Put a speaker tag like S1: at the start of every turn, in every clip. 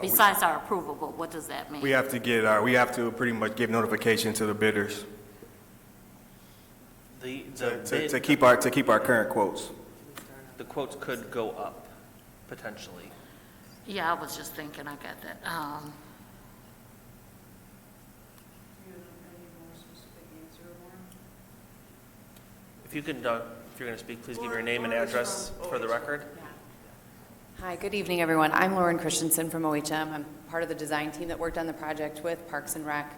S1: Besides our approval, but what does that mean?
S2: Uh, We have to get our, we have to pretty much give notification to the bidders
S3: The,
S2: to- to, to
S3: the bid,
S2: keep our, to keep our current quotes.
S3: the quotes could go up, potentially.
S1: Yeah, I was just thinking, I got that.
S4: Do
S1: Um,
S4: you have any more specific answer, Warren?
S3: If you can, uh, if you're going to speak, please give your name and address for the record.
S5: Hi, good evening, everyone. I'm Lauren Christensen from OHM. I'm part of the design team that worked on the project with Parks and Rec.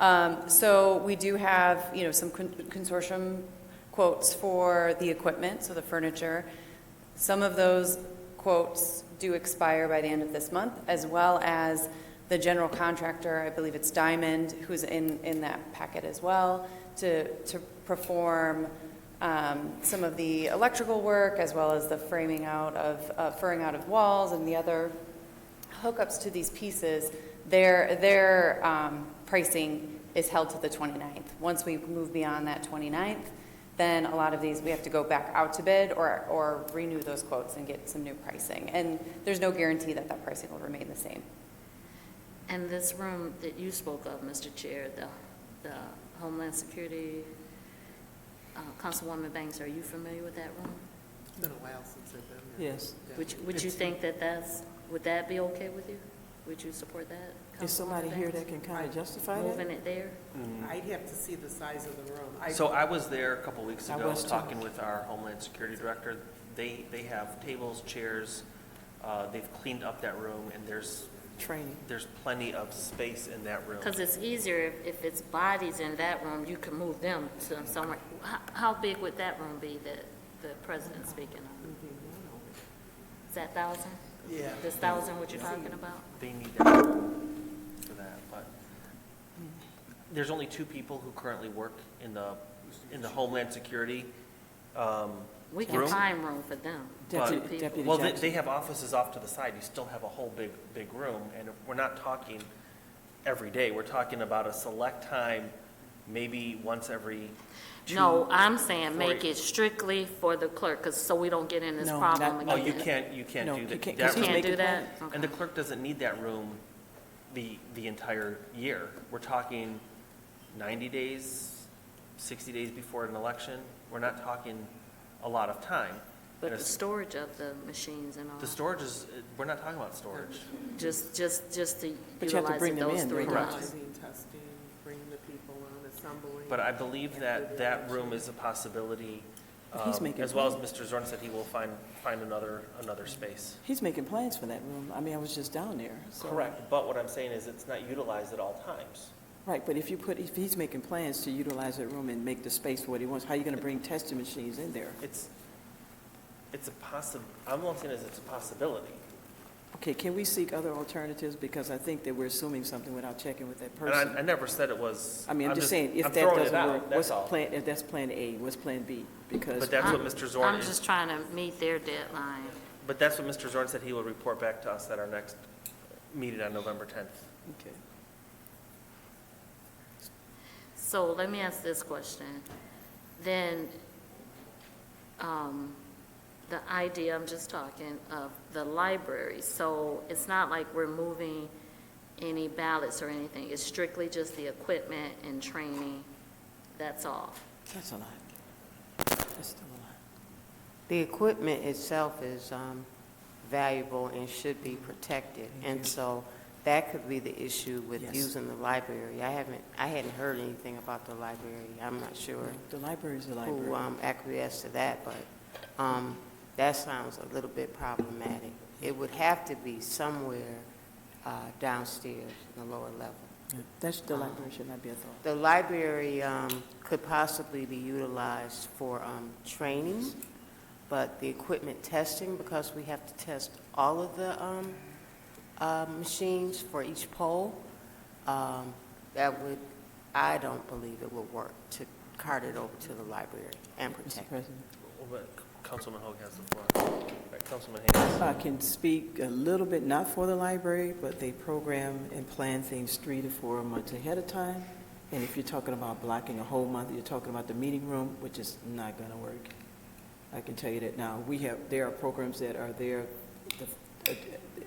S5: Um, So we do have, you know, some con- consortium quotes for the equipment, so the furniture. Some of those quotes do expire by the end of this month, as well as the general contractor, I believe it's Diamond, who's in, in that packet as well, to, to perform um, some of the electrical work, as well as the framing out of, uh, furring out of walls and the other hookups to these pieces, their, their um, pricing is held to the 29th. Once we move beyond that 29th, then a lot of these, we have to go back out to bid or, or renew those quotes and get some new pricing. And there's no guarantee that that pricing will remain the same.
S1: And this room that you spoke of, Mr. Chair, the the Homeland Security, uh, Councilwoman Banks, are you familiar with that room?
S6: It's been a while since I've been there.
S7: Yes.
S1: Would you- Would you think that that's, would that be okay with you? Would you support that?
S7: Is somebody
S1: Councilwoman
S7: here
S1: Banks?
S7: that can kind of justify that?
S1: Moving it there?
S6: I'd have to see the size of the room. I-
S3: Mm. So I was there a couple weeks
S7: I
S3: ago,
S7: was too.
S3: talking with our Homeland Security Director. They, they have tables, chairs, uh, they've cleaned up that room, and there's,
S7: Training.
S3: there's plenty of space in that room.
S1: Because it's easier if- if it's bodies in that room, you can move them to somewhere. How- How big would that room be that the president's speaking of? Is that 1,000?
S6: Yeah.
S1: This 1,000 what you're talking about?
S3: They need that room for that, but there's only two people who currently work in the, in the Homeland Security. um,
S1: We can
S3: Room?
S1: find room for them.
S3: But-
S1: two
S7: Deputy,
S1: people.
S7: Deputy
S3: Well, they,
S7: Jackson.
S3: they have offices off to the side, you still have a whole big, big room, and we're not talking every day, we're talking about a select time, maybe once every two.
S1: No, I'm saying
S3: four-
S1: make it strictly for the clerk, 'cause- so we don't get in this
S7: No,
S1: problem
S7: not-
S1: again.
S3: Oh, you can't, you can't
S7: No,
S3: do
S7: you
S3: that.
S7: can't,
S3: that
S7: 'cause he's
S3: room.
S1: Can't do
S7: making
S1: that?
S3: And
S1: Okay.
S3: the clerk doesn't need that room the, the entire year. We're talking 90 days, 60 days before an election. We're not talking a lot of time.
S1: But
S3: And
S1: the
S3: it's-
S1: storage of the machines and all,
S7: Uh-huh.
S3: The storage is, we're not talking about storage.
S1: just, just, just to
S7: But you have to
S1: utilize
S7: bring
S1: it
S7: them
S1: those
S7: in,
S1: three
S7: right?
S3: Correct.
S1: times.
S6: Organizing, testing, bringing the people on, assembling.
S3: But I believe that that room is a possibility.
S7: But he's
S3: um,
S7: making
S3: As well as Mr. Zorn said, he will find, find another, another space.
S7: He's making plans for that room. I mean, I was just down there, so.
S3: Correct, but what I'm saying is it's not utilized at all times.
S7: Right, but if you put, if he's making plans to utilize that room and make the space for what he wants, how are you going to bring testing machines in there?
S3: It's, it's a possi, I'm not saying is it's a possibility.
S7: Okay, can we seek other alternatives? Because I think that we're assuming something without checking with that
S3: And I, I
S7: person.
S3: never said it was.
S7: I mean, I'm just saying,
S3: I'm
S7: if that
S3: throwing it
S7: doesn't
S3: out,
S7: work,
S3: that's
S7: what's
S3: all.
S7: plan, if that's plan A, what's plan B? Because
S3: But that's what
S1: I'm-
S3: Mr. Zorn,
S1: I'm
S3: is-
S1: just trying to meet their deadline.
S3: but that's what Mr. Zorn said he will report back to us at our next meeting on November 10th.
S7: Okay.
S1: So let me ask this question. Then, um, the idea, I'm just talking of the library, so it's not like we're moving any ballots or anything. It's strictly just the equipment and training, that's all.
S7: That's a lot. That's still a lot.
S8: The equipment itself is um, valuable and should be protected, and so that could be the issue with
S7: Yes.
S8: using the library. I haven't, I hadn't heard anything about the library, I'm not sure
S7: The library's the library.
S8: who um, acquiesced to that, but um, that sounds a little bit problematic. It would have to be somewhere uh, downstairs in the lower level.
S7: Yeah, That's, the library should not be a thought.
S8: The library um, could possibly be utilized for um, training, but the equipment testing, because we have to test all of the um, uh, machines for each poll, um, that would, I don't believe it would work to cart it over to the library and
S7: Mr.
S8: protect it.
S7: President.
S3: Councilman Hoag has the floor. Right, Councilman Hayes.
S7: If I can speak a little bit, not for the library, but they program and plan things three to four months ahead of time. And if you're talking about blocking a whole month, you're talking about the meeting room, which is not going to work. I can tell you that now. We have, there are programs that are there, the- uh,